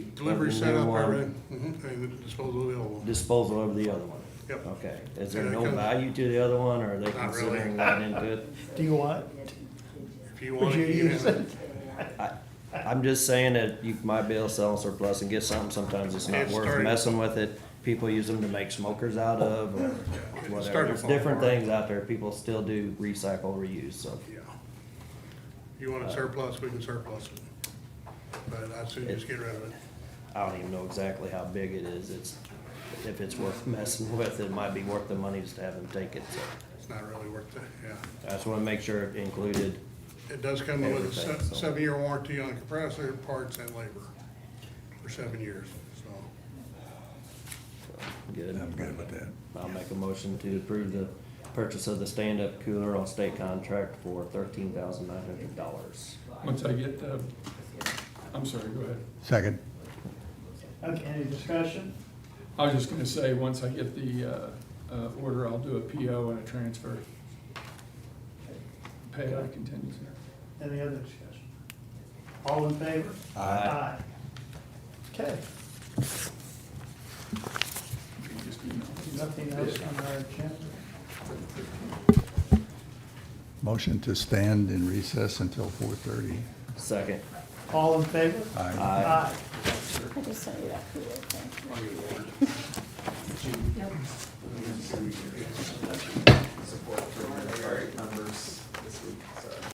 Delivery Other than setup, I one. read, mhm, and disposal available. disposal of the other one? Yep. Okay, is there And it no comes- value to the other one, or are they Not really. considering that into it? Do you want it? If you Would want you it, you can use have it. it? I'm just saying that you might be able to sell surplus and get something, sometimes it's not It's worth starting- messing with it. People use them to make smokers out of, or whatever, starting to there's fall different apart. things out there, people still do recycle, reuse, so. Yeah. You Uh, want it surplus, we can surplus it. But I'd soon just get rid of it. I don't even know exactly how big it is, it's, if it's worth messing with, it might be worth the money just to have them take it, so. It's not really worth it, yeah. I just wanna make sure it included, It does come with a Everything, so. se- seven-year warranty on compressor parts and labor for seven years, so. good. I'm good with that. I'll make a motion to approve the purchase of the stand-up cooler on state contract for thirteen thousand nine hundred dollars. Once I get the, I'm sorry, go ahead. Second. Okay, any discussion? I was just gonna say, once I get the, uh, uh, order, I'll do a PO and a transfer. Pay out of contingency. Any other discussion? All in favor? Aye. Okay, You can just email it. nothing else on our agenda? Motion to stand in recess until four thirty. Second. All in favor? Aye. Aye. I just saw you that cool, okay. support for my priority numbers this week, so.